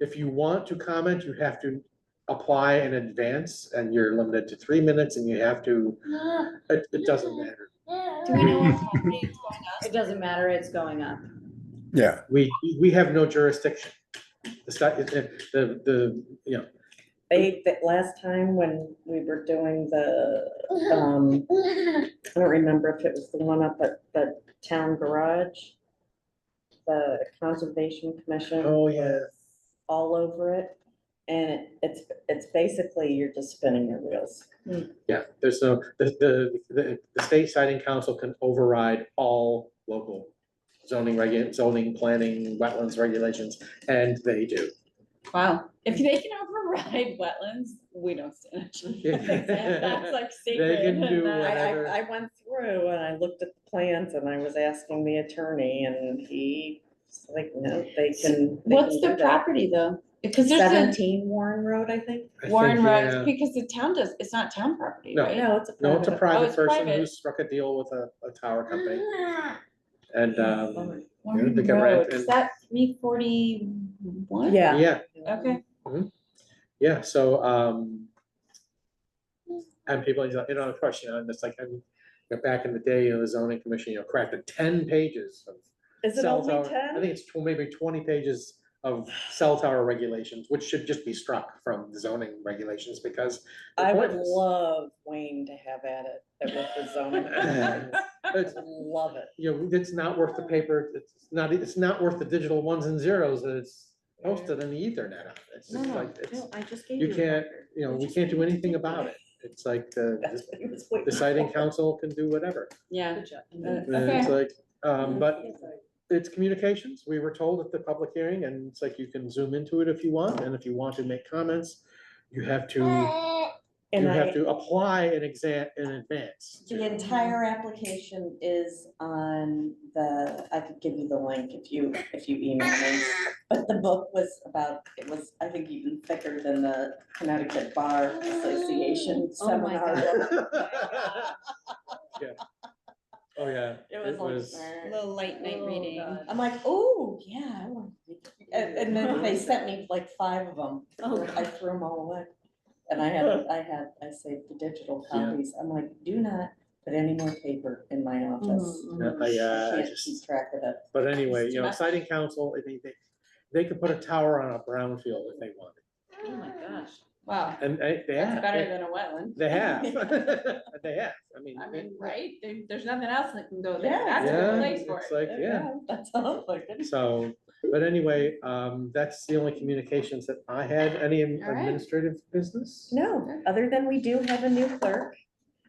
If you want to comment, you have to apply in advance and you're limited to three minutes and you have to, it, it doesn't matter. Do we know what time it is going up? It doesn't matter, it's going up. Yeah, We, we have no jurisdiction. The, sta- the, the- the, you know, They, that last time when we were doing the, um, I don't remember if it was the one up at the town garage. The Conservation Commission. Oh, yeah. was All over it, and it, it's, it's basically you're just spinning your wheels. yeah, there's no, the, the, the, the state siding council can override all local zoning regu, zoning, planning, wetlands regulations, and they do. Wow, if they can override wetlands, we don't stand a chance. That's like sacred. can do and I, that- Whatever. I, I went through and I looked at the plans and I was asking the attorney and he, was like, no, they can. they What's can the do that." property though? Because there's Seventeen Warren Road, I think. I a Warren think, Road, yeah. because the town does, it's not town property, No. right? No, it's a. No, it's a private- Oh, private it's person who private. struck a deal with a, a tower company. And, um, Yeah, Warren they can rent Road, and- is that three forty-one? Yeah. yeah, Okay, yeah, so, um. And people, you know, you know, of course, you know, and it's like, I mean, you know, back in the day, you know, the zoning commission, you know, crafted ten pages of. Is it cell only tower- I ten? think it's tw- maybe twenty pages of cell tower regulations, which should just be struck from the zoning regulations because. they're I would pointless. love Wayne to have at it, at with the zoning. ordinance. It's- Love it. you know, it's not worth the paper, it's not, it's not worth the digital ones and zeros that it's posted in the ethernet. on. It's just like, it's, I just gave you can't, you know, we can't do anything about it. It's like the, the citing siding council can do whatever. yeah. And it's like, um, but it's communications. We were told at the public hearing and it's like you can zoom into it if you want. And if you want to make comments, you have to, you And I, have to apply an exam in advance. to- the entire application is on the, I could give you the link if you, if you email me. But the book was about, it was, I think even thicker than the Connecticut Bar Association Oh my seminar. Yeah. Oh, yeah. It was like. Little late night Oh, reading. God. I'm like, oh, yeah, I want to And, and then they sent me like five of them. Oh, I threw them all away. And I had, I had, I saved the digital Yeah. copies. I'm like, do not put any more paper in my office. Yeah, I, uh, I I can't just- keep track of it. But anyway, you know, It's siding council, I mean, they, they could put a tower on a brownfield if they wanted. Oh my gosh, wow, And they, they that's have, better they- than a wetland. they have, they have, I mean. I they- mean, right, there, there's nothing else that can go there, Yeah. that's a Yeah, good place for it's it. like, yeah, That's all, like, it's- so, but anyway, um, that's the only communications that I had, any ad- All right. administrative business? no, other than we do have a new clerk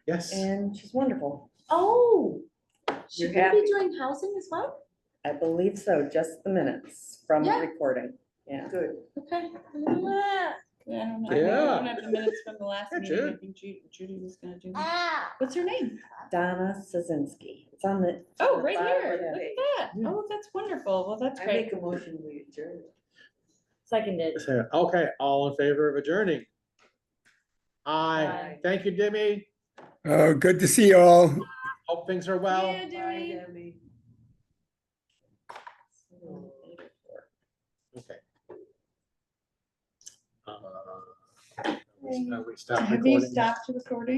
Yes, and she's wonderful. Oh, You're should we happy. be doing housing as well? I believe so, just the minutes from the Yeah. recording. Yeah. Good. Okay. Yeah, I don't know, I Yeah. don't have the minutes from the last Yeah, meeting, I Jude. think Ju- Judy was gonna do. that. What's her name? Donna Szynski. It's on the. it's on Oh, the right bottom here, of look the- at that, Yeah. oh, that's wonderful, well, that's I great. make a motion, we adjourn. Seconded. So, okay, all in favor of adjourning? Aye, Aye. thank you, Dimmy, oh, good to see you all. hope things are well. Yeah, Bye, Dewey. Debbie. Okay. Uh, Have Uh, Have you stopped recording?